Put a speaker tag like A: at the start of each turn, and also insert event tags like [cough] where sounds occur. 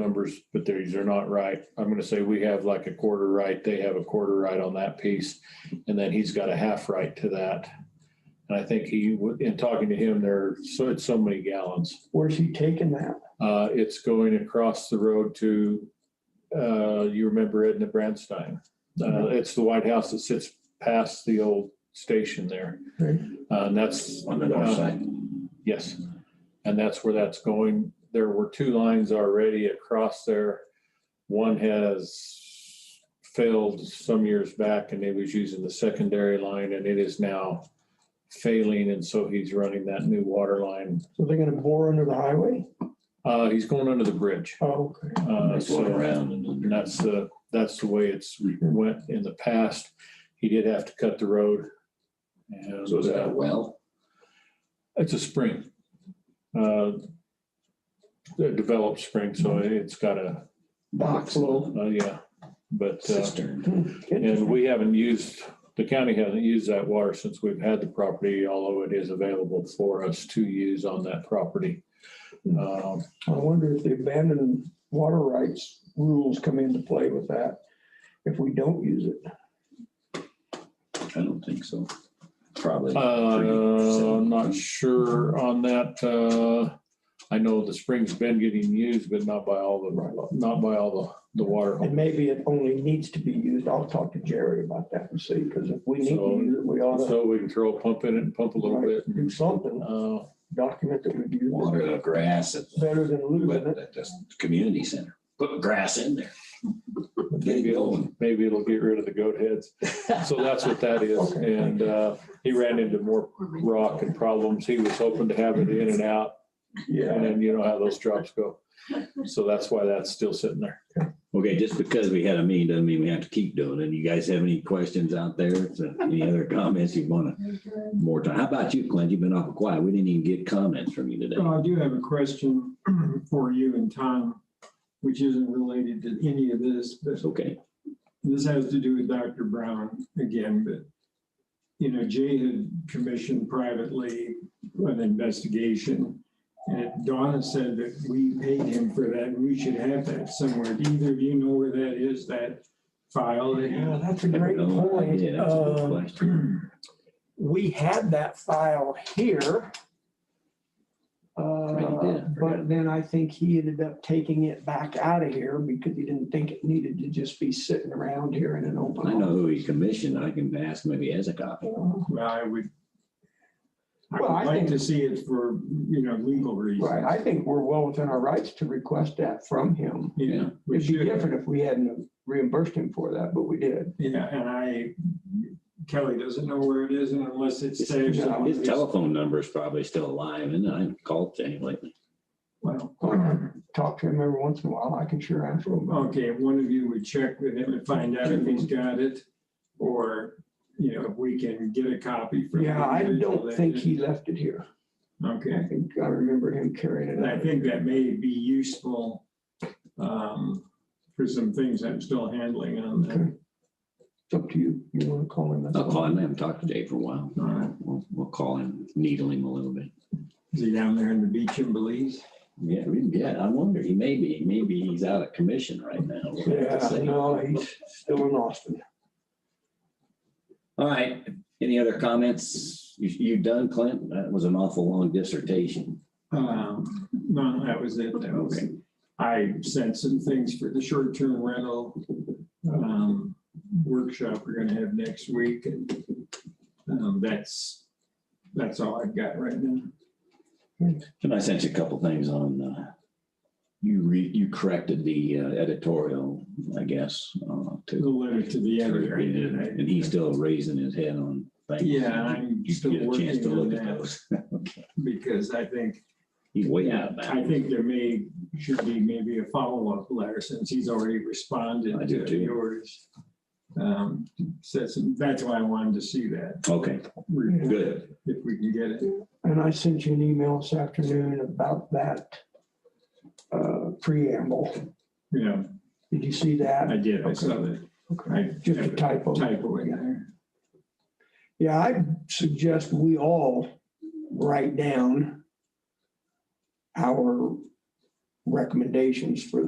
A: numbers, but these are not right. I'm gonna say we have like a quarter right, they have a quarter right on that piece. And then he's got a half right to that. And I think he, in talking to him, there, so it's so many gallons.
B: Where's he taking that?
A: Uh, it's going across the road to, uh, you remember Edna Branstein. Uh, it's the White House that sits past the old station there.
B: Right.
A: Uh, and that's. uh,
C: On the north side.
A: Yes, and that's where that's going. There were two lines already across there. One has failed some years back and it was using the secondary line and it is now failing. And so he's running that new water line.
B: So they're gonna bore under the highway?
A: Uh, he's going under the bridge.
B: Oh, okay.
A: Uh,
C: It's going
A: so-
C: around Hmm. and
A: and that's the, that's the way it's went in the past. He did have to cut the road. And
C: so is that a
A: uh,
C: well?
A: It's a spring. Uh, a Developed spring, so it's got a,
C: Box, little
A: uh, yeah, but, uh,
C: cistern.
A: and we haven't used, the county hasn't used that water since we've had the property, although it is available for us to use on that property.
C: Hmm.
A: Um,
B: I wonder if the abandoned water rights rules come into play with that, if we don't use it.
C: I don't think so. Probably.
A: Uh, I'm not sure on that. Uh, I know the spring's been getting used, but not by all the, not by all the, the water.
B: And maybe it only needs to be used. I'll talk to Jerry about that and see, because if we need to
A: So-
B: use it, we ought to
A: So we can throw a pump in it and pump a little bit.
B: do something,
A: Uh,
B: document that we've used it.
C: Water the grass at the,
B: Better than losing it.
C: at the community center. Put grass in there. Get it going.
A: maybe it'll get rid of the goat heads. So that's what that is.
B: Okay.
A: And uh, he ran into more rock and problems. He was hoping to have it in and out. And
B: Yeah.
A: then you know how those drops go. So that's why that's still sitting there.
D: Okay, just because we had a meeting doesn't mean we have to keep doing it. You guys have any questions out there? So Any other comments you want to more time? How about you, Clint? You've been awful quiet. We didn't even get comments from you today.
E: Well, I do have a question [clears throat] for you and Tom, which isn't related to any of this, but
D: It's okay.
E: this has to do with Dr. Brown again, but you know, Jay had commissioned privately an investigation. And Donna said that we paid him for that. and We should have that somewhere. Do either of you know where that is, that file? that you-
B: Yeah, that's a great
D: No
B: point.
D: idea. That's a good
B: Um,
D: question.
B: We had that file here.
D: Right,
B: Uh,
D: yeah,
B: But then I think he ended up taking it back out of here because he didn't think it needed to just be sitting around here in an open.
D: I know who he commissioned. I can ask him if he has a copy.
B: office.
E: Well, I would. I
B: Well, I
E: would like
B: think-
E: to see it for, you know, legal reasons.
B: Right, I think we're well within our rights to request that from him.
E: Yeah. we
B: It'd be
E: should.
B: different if we hadn't reimbursed him for that, but we
D: [clears throat]
B: did.
E: Yeah, and I, Kelly doesn't know where it is and unless it's
D: His
E: saved. somewhere.
D: his telephone number is probably still alive and I haven't called him lately.
E: Well,
B: Talk to him every once in a while, I can sure ask him.
E: Okay, if one of you would check with him and find out if he's got it, or, you know, if we can get a copy from.
B: Yeah,
E: the
B: I
E: individual
B: don't
E: that
B: think
E: did-
B: he left it here. I
E: Okay,
B: think I remember him carrying it
E: and I
B: out.
E: think that may be useful um, for some things I'm still handling on
B: Okay.
E: that.
B: It's up to you. You want to call him? that's
D: I'll call
B: fine.
D: him. I haven't talked to Dave for a while.
E: All right.
D: We'll, we'll call him, needle him a little bit.
E: Is he down there in the beach in Belize?
D: Yeah, we- yeah, I wonder. He may be, maybe he's out of commission right now. We'll
B: Yeah,
D: have to see.
B: no, he's still in Austin.
D: All right, any other comments? You, you done, Clint? That was an awful long dissertation.
E: Um, No, that was it. That was-
D: Okay.
E: I sent some things for the short-term rental um, workshop we're gonna have next week. and um, That's, that's all I've got right now.
D: And I sent you a couple things on, uh, you re, you corrected the uh, editorial, I guess, uh,
E: The
D: to.
E: letter to the editor.
D: And he's still raising his head on things.
E: Yeah, I'm
D: You
E: still
D: get a chance to
E: working on
D: look at
E: that.
D: those.
E: Because I think,
D: He's way out of
E: I
D: bounds.
E: think there may, should be maybe a follow-up letter since he's already responded
D: I do
E: to
D: too.
E: yours. Um, so that's- That's why I wanted to see that,
D: Okay, good.
E: if we can get it.
B: And I sent you an email this afternoon about that uh, preamble.
E: Yeah,
B: Did you see
E: I
B: that?
E: did. I saw that
B: Okay. Just a typo.
E: typo in there.
B: Yeah, I suggest we all write down our recommendations for